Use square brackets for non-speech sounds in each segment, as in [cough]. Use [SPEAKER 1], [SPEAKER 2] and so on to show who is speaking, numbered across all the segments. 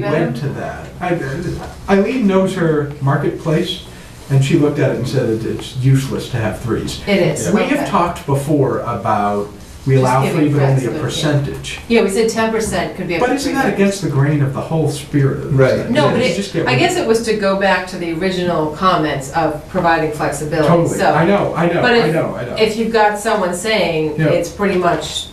[SPEAKER 1] We went to that. I- Eileen knows her marketplace, and she looked at it and said that it's useless to have threes.
[SPEAKER 2] It is.
[SPEAKER 1] We
[SPEAKER 2] okay.
[SPEAKER 1] have talked before about, we
[SPEAKER 2] Just
[SPEAKER 1] allow
[SPEAKER 2] giving
[SPEAKER 1] three, but only a
[SPEAKER 2] flexibility.
[SPEAKER 1] percentage.
[SPEAKER 2] Yeah, we said ten percent could be. up
[SPEAKER 1] But
[SPEAKER 2] to
[SPEAKER 1] isn't
[SPEAKER 2] three
[SPEAKER 1] that
[SPEAKER 2] hundred.
[SPEAKER 1] against the grain of the whole spirit of this?
[SPEAKER 3] Right.
[SPEAKER 1] thing?
[SPEAKER 2] No, but
[SPEAKER 1] It's just
[SPEAKER 2] it,
[SPEAKER 1] get
[SPEAKER 2] I
[SPEAKER 1] rid-
[SPEAKER 2] guess it was to go back to the original comments of providing flexibility,
[SPEAKER 1] Totally, I
[SPEAKER 2] so.
[SPEAKER 1] know, I know,
[SPEAKER 2] But
[SPEAKER 1] I
[SPEAKER 2] if-
[SPEAKER 1] know, I know.
[SPEAKER 2] If you've got someone saying
[SPEAKER 1] Yeah.
[SPEAKER 2] it's pretty much,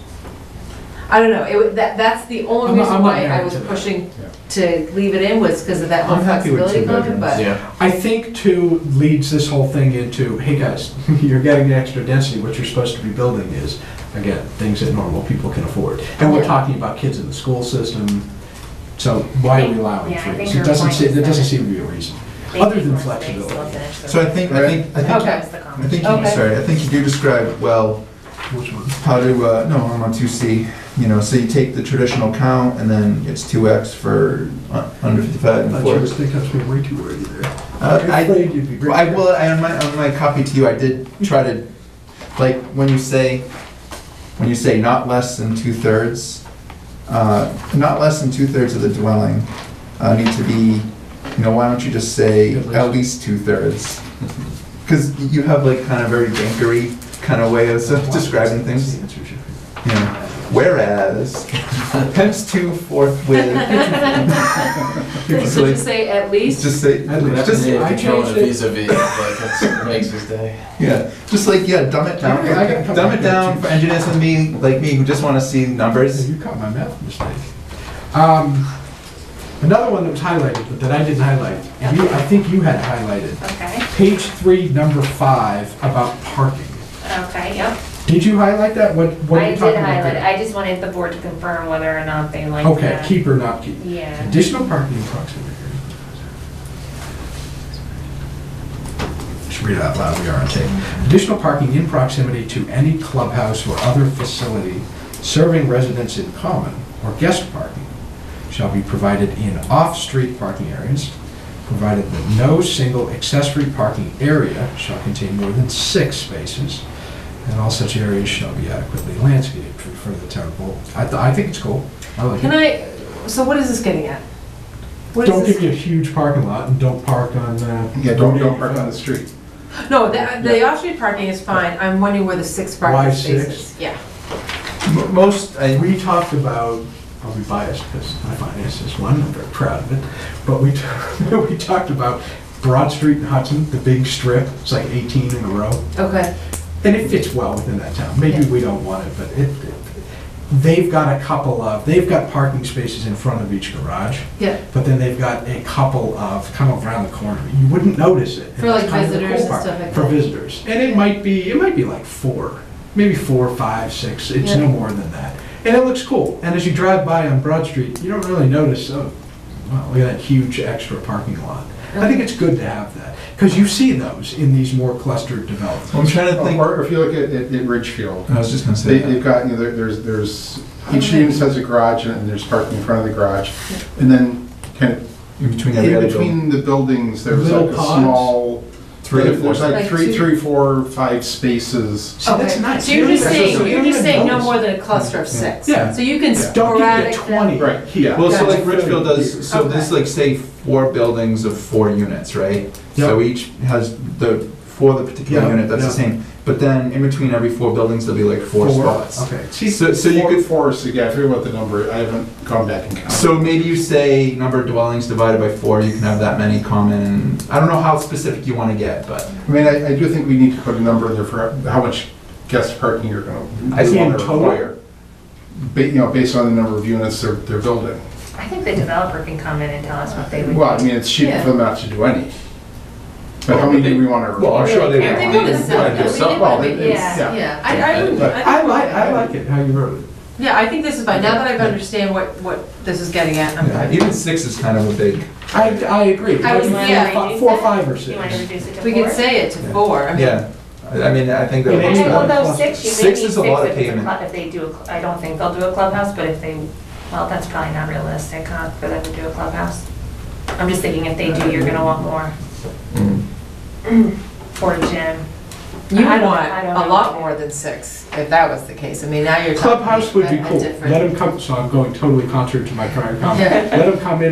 [SPEAKER 2] I don't know, it, would- that, that's the
[SPEAKER 1] I'm not-
[SPEAKER 2] only
[SPEAKER 1] I'm
[SPEAKER 2] reason
[SPEAKER 1] not
[SPEAKER 2] why I
[SPEAKER 1] married
[SPEAKER 2] was
[SPEAKER 1] to that.
[SPEAKER 2] pushing to leave it in was because of that whole
[SPEAKER 3] I'm happy with
[SPEAKER 2] flexibility
[SPEAKER 3] two
[SPEAKER 2] comment,
[SPEAKER 3] bedrooms.
[SPEAKER 2] [laughs] but.
[SPEAKER 4] Yeah,
[SPEAKER 1] I think too leads this whole thing into, hey guys, [laughs] you're getting the extra density, what you're supposed to be building is, again, things that normal people can afford. And we're
[SPEAKER 2] Yeah.
[SPEAKER 1] talking about kids in the school system, so why are we allowing
[SPEAKER 5] Yeah, I think
[SPEAKER 1] threes? It
[SPEAKER 5] your
[SPEAKER 1] doesn't
[SPEAKER 5] point
[SPEAKER 1] seem,
[SPEAKER 5] is
[SPEAKER 1] that doesn't
[SPEAKER 5] that-
[SPEAKER 1] seem to be a reason, other than flexibility.
[SPEAKER 3] So I think, I think, I think,
[SPEAKER 2] Okay.
[SPEAKER 3] I think, you-
[SPEAKER 2] Okay.
[SPEAKER 3] sorry, I think you do describe well
[SPEAKER 1] Which one?
[SPEAKER 3] how to, uh, no, I'm on two C, you know, so you take the traditional count and then it's two X for uh, under fifty-five and four. X.
[SPEAKER 1] think I was being way too wordy there.
[SPEAKER 3] Uh, I,
[SPEAKER 1] you'd be
[SPEAKER 3] well, I, well, I, on my, on my copy to you, I did try to, like, when you say, when you say not less than two-thirds, uh, not less than two-thirds of the dwelling, uh, need to be, you know, why don't you just say
[SPEAKER 1] At least.
[SPEAKER 3] at least
[SPEAKER 1] [laughs]
[SPEAKER 3] two-thirds? Cause you have like kind of very bankery kind of way of describing things, you know. Whereas, times two fourth with.
[SPEAKER 2] So just say at least,
[SPEAKER 3] Just say,
[SPEAKER 1] At least.
[SPEAKER 3] just,
[SPEAKER 1] I changed it.
[SPEAKER 4] vis a vis, like, it makes his day.
[SPEAKER 3] Yeah, just like, yeah, dumb it down,
[SPEAKER 1] I gotta come
[SPEAKER 3] dumb
[SPEAKER 1] back
[SPEAKER 3] it down
[SPEAKER 1] to-
[SPEAKER 3] for engineers and me, like me, who just wanna see numbers.
[SPEAKER 1] You caught my math mistake. Um, Another one that was highlighted, but that I didn't highlight, you, I think you had highlighted,
[SPEAKER 5] Okay,
[SPEAKER 1] page three, number five, about parking.
[SPEAKER 5] okay, yep.
[SPEAKER 1] Did you highlight that? What, what are
[SPEAKER 5] I
[SPEAKER 1] you
[SPEAKER 5] did
[SPEAKER 1] talking about
[SPEAKER 5] highlight, it.
[SPEAKER 1] there?
[SPEAKER 5] I just wanted the board to confirm whether or not they like
[SPEAKER 1] Okay,
[SPEAKER 5] that.
[SPEAKER 1] keep or not keep.
[SPEAKER 5] Yeah.
[SPEAKER 1] Additional parking in proximity. Should read it out loud, we are on tape. Additional parking in proximity to any clubhouse or other facility serving residents in common or guest parking shall be provided in off-street parking areas, provided that no single accessory parking area shall contain more than six spaces, and all such areas shall be adequately landscaped for for the town board. I, th- I think it's cool. I like it.
[SPEAKER 2] can I, so what is this getting at? What is
[SPEAKER 1] Don't
[SPEAKER 2] this-
[SPEAKER 1] give you a huge parking lot and don't park on, uh.
[SPEAKER 3] street.
[SPEAKER 2] No, the, the off-street parking is fine, I'm wondering where the six
[SPEAKER 1] Why
[SPEAKER 2] parking
[SPEAKER 1] six?
[SPEAKER 2] spaces, yeah.
[SPEAKER 3] Most, I,
[SPEAKER 1] We talked about, I'll be biased because I finance this one, I'm very proud of it, but we, [laughs] t- we talked about Broad Street in Hudson, the big strip, it's like eighteen in a row.
[SPEAKER 2] Okay,
[SPEAKER 1] And it fits well within that town. Maybe
[SPEAKER 2] Yeah.
[SPEAKER 1] we don't want it, but it, it- they've got a couple of, they've got parking spaces in front of each garage,
[SPEAKER 2] yeah,
[SPEAKER 1] but then they've got a couple of, kind of around the corner. You wouldn't notice it.
[SPEAKER 2] For, like,
[SPEAKER 1] It's kind of the cool
[SPEAKER 2] visitors and
[SPEAKER 1] part,
[SPEAKER 2] stuff like
[SPEAKER 1] For
[SPEAKER 2] that.
[SPEAKER 1] visitors. And it might be, it might be like four, maybe four, five, six, it's
[SPEAKER 2] Yeah.
[SPEAKER 1] no more than that. And it looks cool. And as you drive by on Broad Street, you don't really notice, oh, wow, look at that huge extra parking lot. I think it's good to have that, because you see those in these more clustered developments.
[SPEAKER 3] I'm trying to think,
[SPEAKER 6] Or if you look at, at at Ridgefield,
[SPEAKER 3] I was just gonna say
[SPEAKER 6] Oh, they, they've
[SPEAKER 3] that.
[SPEAKER 6] got, you know, there- there's, there's, each unit has a garage and there's parking in front of the garage. And then kind of
[SPEAKER 3] In between every
[SPEAKER 6] in
[SPEAKER 3] other building.
[SPEAKER 6] between the buildings, there's
[SPEAKER 1] Little
[SPEAKER 6] like a
[SPEAKER 1] pods?
[SPEAKER 6] small,
[SPEAKER 3] Three or
[SPEAKER 6] there's
[SPEAKER 3] four.
[SPEAKER 6] like
[SPEAKER 2] Like two-
[SPEAKER 6] three, three, four, five spaces.
[SPEAKER 1] See, that's
[SPEAKER 2] Okay.
[SPEAKER 1] nice.
[SPEAKER 2] So you're just
[SPEAKER 1] That's
[SPEAKER 2] saying,
[SPEAKER 1] just-
[SPEAKER 2] you're
[SPEAKER 1] you
[SPEAKER 2] just
[SPEAKER 1] don't
[SPEAKER 2] saying no
[SPEAKER 1] notice.
[SPEAKER 2] more than a cluster of six.
[SPEAKER 1] Yeah.
[SPEAKER 2] So you
[SPEAKER 1] Don't
[SPEAKER 2] can
[SPEAKER 1] give
[SPEAKER 2] sporadic
[SPEAKER 1] me a
[SPEAKER 2] them.
[SPEAKER 1] twenty
[SPEAKER 6] Right,
[SPEAKER 1] here.
[SPEAKER 3] Well, so
[SPEAKER 1] That's
[SPEAKER 3] like
[SPEAKER 1] really
[SPEAKER 3] Richfield
[SPEAKER 1] weird.
[SPEAKER 3] does, so this
[SPEAKER 2] Okay.
[SPEAKER 3] like say four buildings of four units, right? So
[SPEAKER 1] Yep.
[SPEAKER 3] each has the, for the particular
[SPEAKER 1] Yeah,
[SPEAKER 3] unit, that's the
[SPEAKER 1] yeah.
[SPEAKER 3] same, but then in between every four buildings, there'll be like four spots.
[SPEAKER 1] Okay.
[SPEAKER 3] So, so you
[SPEAKER 6] Four-
[SPEAKER 3] could,
[SPEAKER 6] Four, so yeah, I forget what the number, I haven't gone back and counted.
[SPEAKER 3] So maybe you say number of dwellings divided by four, you can have that many common, I don't know how specific you wanna get, but
[SPEAKER 6] I mean, I, I do think we need to put a number in there for how much guest parking you're gonna.
[SPEAKER 3] I see
[SPEAKER 1] In
[SPEAKER 3] in
[SPEAKER 1] total?
[SPEAKER 3] total.
[SPEAKER 6] Ba, you know, based on the number of units they're, they're building.
[SPEAKER 5] I think the developer can come in and tell us what they would.
[SPEAKER 6] Well, I mean, it's cheap
[SPEAKER 2] Yeah.
[SPEAKER 6] for them not to do any. But how many do we wanna?
[SPEAKER 3] Well, I'm sure they
[SPEAKER 2] I
[SPEAKER 3] would
[SPEAKER 2] think
[SPEAKER 3] want
[SPEAKER 2] it
[SPEAKER 3] to
[SPEAKER 2] is seven.
[SPEAKER 3] do
[SPEAKER 2] I mean,
[SPEAKER 3] something.
[SPEAKER 6] Well,
[SPEAKER 2] it-
[SPEAKER 6] it's-
[SPEAKER 5] yeah,
[SPEAKER 6] yeah.
[SPEAKER 2] Yeah, I, I wouldn't,
[SPEAKER 6] But
[SPEAKER 1] I
[SPEAKER 2] I
[SPEAKER 1] like,
[SPEAKER 2] like,
[SPEAKER 1] I like it, how you wrote it.
[SPEAKER 2] yeah, I think this is fine, now that I've understand what, what this is getting at, I'm
[SPEAKER 3] Yeah,
[SPEAKER 2] fine.
[SPEAKER 3] Even six is kind of a big,
[SPEAKER 1] I, I agree.
[SPEAKER 2] I was-
[SPEAKER 1] Four,
[SPEAKER 2] yeah.
[SPEAKER 1] fi- Four, five or six.
[SPEAKER 5] You wanna reduce it to four?
[SPEAKER 2] We could say it to
[SPEAKER 1] Yeah.
[SPEAKER 2] four, I mean,
[SPEAKER 3] yeah, I I mean, I think that.
[SPEAKER 1] It
[SPEAKER 5] And
[SPEAKER 1] is
[SPEAKER 5] then, well,
[SPEAKER 1] about-
[SPEAKER 3] works.
[SPEAKER 5] though, six, you may need
[SPEAKER 3] Six
[SPEAKER 5] six
[SPEAKER 3] is a lot of
[SPEAKER 5] if it's a
[SPEAKER 3] pavement.
[SPEAKER 5] club, if they do, a cl- I don't think they'll do a clubhouse, but if they, well, that's probably not realistic, huh, for them to do a clubhouse. I'm just thinking if they do, you're gonna want more,
[SPEAKER 3] Mm.
[SPEAKER 5] or a gym.
[SPEAKER 2] you
[SPEAKER 5] I
[SPEAKER 2] would
[SPEAKER 5] don't-
[SPEAKER 2] want
[SPEAKER 5] I don't
[SPEAKER 2] a
[SPEAKER 5] know.
[SPEAKER 2] lot more than six, if that was the case, I mean, now you're talking.
[SPEAKER 1] Clubhouse would be
[SPEAKER 2] a
[SPEAKER 1] cool.
[SPEAKER 2] different-
[SPEAKER 1] Let them come, so I'm going totally contrary to my prior comment.
[SPEAKER 2] Yeah.
[SPEAKER 1] Let them come in